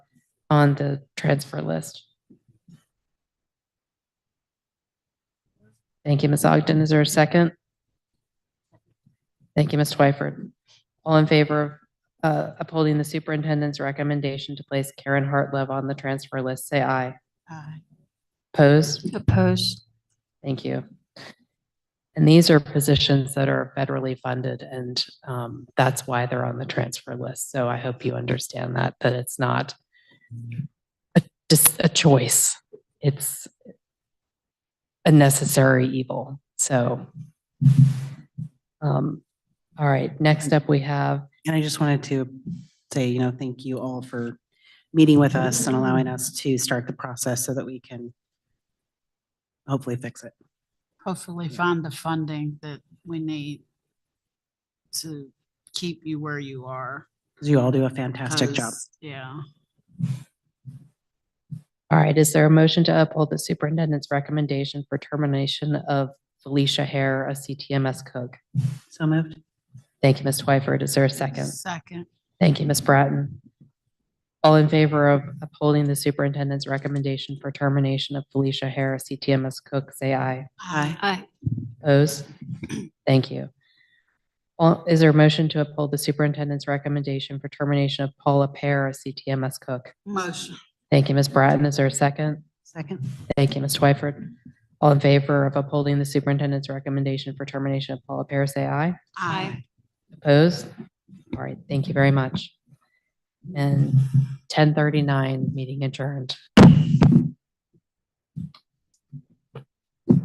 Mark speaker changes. Speaker 1: on the transfer list. Thank you, Ms. Ogden. Is there a second? Thank you, Ms. Twyford. All in favor of uh, upholding the superintendent's recommendation to place Karen Hartlove on the transfer list, say aye.
Speaker 2: Aye.
Speaker 1: Opposed?
Speaker 2: Opposed?
Speaker 1: Thank you. And these are positions that are federally funded and um, that's why they're on the transfer list. So I hope you understand that, that it's not a- just a choice. It's a necessary evil. So. um, All right, next up we have,
Speaker 2: And I just wanted to say, you know, thank you all for meeting with us and allowing us to start the process so that we can hopefully fix it.
Speaker 3: hopefully find the funding that we need to keep you where you are.
Speaker 2: 'Cause You all do a fantastic job.
Speaker 3: 'cause- Yeah,
Speaker 1: all right, is there a motion to uphold the superintendent's recommendation for termination of Felicia Hare, a CTMS cook?
Speaker 2: So moved.
Speaker 1: Thank you, Ms. Twyford. Is there a second?
Speaker 3: second,
Speaker 1: Thank you, Ms. Bratton. All in favor of upholding the superintendent's recommendation for termination of Felicia Harris, CTMS cook, say aye.
Speaker 3: aye,
Speaker 4: Aye.
Speaker 1: Opposed? Thank you. All- Is there a motion to uphold the superintendent's recommendation for termination of Paula Pear, a CTMS cook?
Speaker 3: motion,
Speaker 1: Thank you, Ms. Bratton. Is there a second?
Speaker 2: Second.
Speaker 1: Thank you, Ms. Twyford. All in favor of upholding the superintendent's recommendation for termination of Paula Pear, say aye.
Speaker 3: aye,
Speaker 1: Opposed? All right, thank you very much. And 10:39, meeting adjourned.